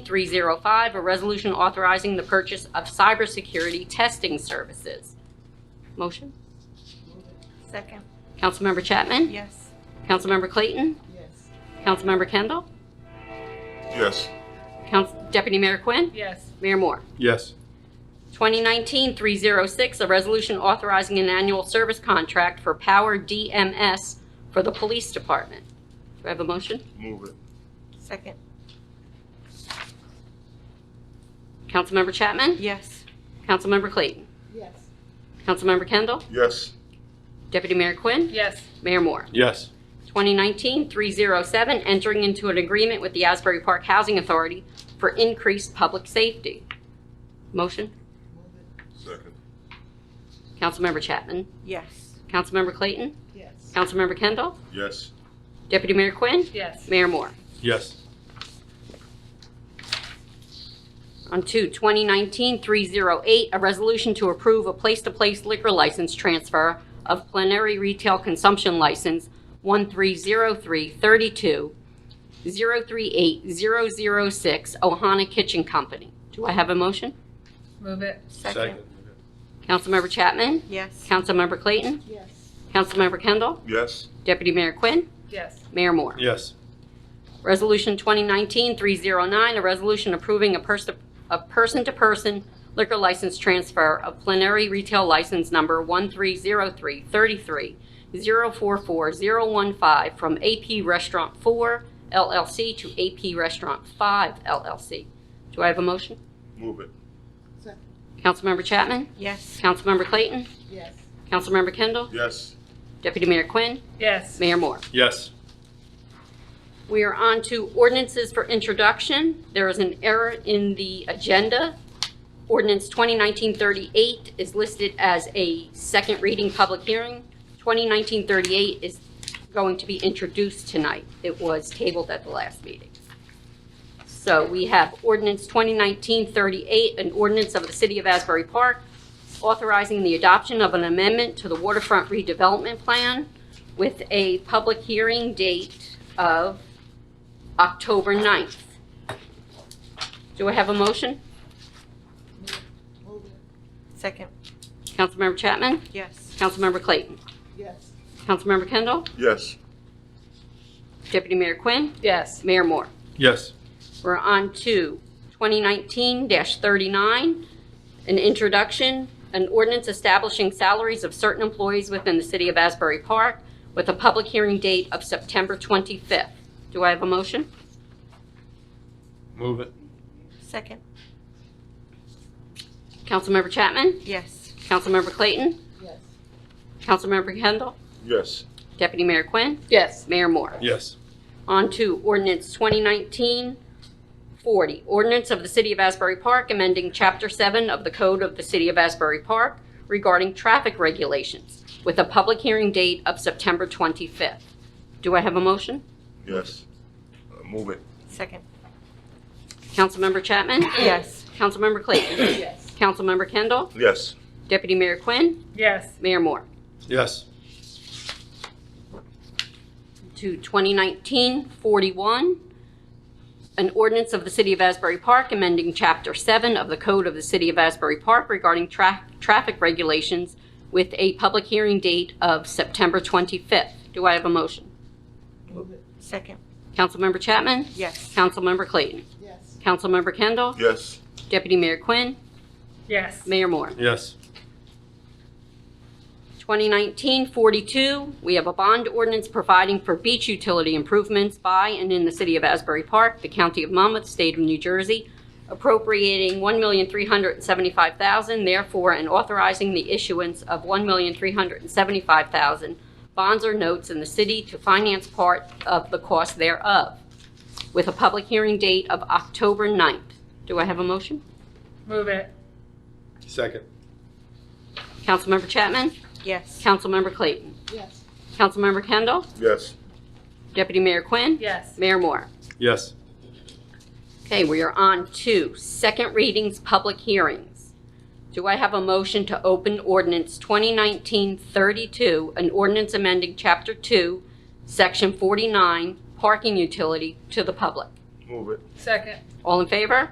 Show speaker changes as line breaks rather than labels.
305, a resolution authorizing the purchase of cybersecurity testing services. Motion?
Second.
Councilmember Chapman?
Yes.
Councilmember Clayton?
Yes.
Councilmember Kendall?
Yes.
Council- Deputy Mayor Quinn?
Yes.
Mayor Moore?
Yes.
2019-306, a resolution authorizing an annual service contract for Power DMS for the Police Department. Do I have a motion?
Move it.
Second.
Councilmember Chapman?
Yes.
Councilmember Clayton?
Yes.
Councilmember Kendall?
Yes.
Deputy Mayor Quinn?
Yes.
Mayor Moore?
Yes.
2019-307, entering into an agreement with the Asbury Park Housing Authority for increased public safety. Motion?
Second.
Councilmember Chapman?
Yes.
Councilmember Clayton?
Yes.
Councilmember Kendall?
Yes.
Deputy Mayor Quinn?
Yes.
Mayor Moore?
Yes.
On to 2019-308, a resolution to approve a place-to-place liquor license transfer of plenary retail consumption license 130332 038 006 Ohana Kitchen Company. Do I have a motion?
Move it. Second.
Councilmember Chapman?
Yes.
Councilmember Clayton?
Yes.
Councilmember Kendall?
Yes.
Deputy Mayor Quinn?
Yes.
Mayor Moore?
Yes.
Resolution 2019-309, a resolution approving a pers- a person-to-person liquor license transfer of plenary retail license number 1303330440015 from AP Restaurant 4 LLC to AP Restaurant 5 LLC. Do I have a motion?
Move it.
Councilmember Chapman?
Yes.
Councilmember Clayton?
Yes.
Councilmember Kendall?
Yes.
Deputy Mayor Quinn?
Yes.
Mayor Moore?
Yes.
We are on to ordinances for introduction. There is an error in the agenda. Ordinance 2019-38 is listed as a second reading public hearing. 2019-38 is going to be introduced tonight. It was tabled at the last meeting. So we have ordinance 2019-38, an ordinance of the City of Asbury Park authorizing the adoption of an amendment to the waterfront redevelopment plan with a public hearing date of October 9th. Do I have a motion?
Second.
Councilmember Chapman?
Yes.
Councilmember Clayton?
Yes.
Councilmember Kendall?
Yes.
Deputy Mayor Quinn?
Yes.
Mayor Moore?
Yes.
We're on to 2019-39, an introduction, an ordinance establishing salaries of certain employees within the city of Asbury Park with a public hearing date of September 25th. Do I have a motion?
Move it.
Second.
Councilmember Chapman?
Yes.
Councilmember Clayton?
Yes.
Councilmember Kendall?
Yes.
Deputy Mayor Quinn?
Yes.
Mayor Moore?
Yes.
On to ordinance 2019-40, ordinance of the City of Asbury Park amending Chapter 7 of the Code of the City of Asbury Park regarding traffic regulations with a public hearing date of September 25th. Do I have a motion?
Yes. Uh, Move it.
Second.
Councilmember Chapman?
Yes.
Councilmember Clayton?
Yes.
Councilmember Kendall?
Yes.
Deputy Mayor Quinn?
Yes.
Mayor Moore?
Yes.
to 2019-41, an ordinance of the City of Asbury Park amending Chapter 7 of the Code of the City of Asbury Park regarding tra- traffic regulations with a public hearing date of September 25th. Do I have a motion?
Second.
Councilmember Chapman?
Yes.
Councilmember Clayton?
Yes.
Councilmember Kendall?
Yes.
Deputy Mayor Quinn?
Yes.
Mayor Moore?
Yes.
2019-42, we have a bond ordinance providing for beach utility improvements by and in the city of Asbury Park, the county of Monmouth, state of New Jersey, appropriating $1,375,000, therefore, and authorizing the issuance of $1,375,000 bonds or notes in the city to finance part of the cost thereof, with a public hearing date of October 9th. Do I have a motion?
Move it.
Second.
Councilmember Chapman?
Yes.
Councilmember Clayton?
Yes.
Councilmember Kendall?
Yes.
Deputy Mayor Quinn?
Yes.
Mayor Moore?
Yes.
Okay, we are on to second readings, public hearings. Do I have a motion to open ordinance 2019-32, an ordinance amending Chapter 2, Section 49, parking utility to the public?
Move it.
Second.
All in favor?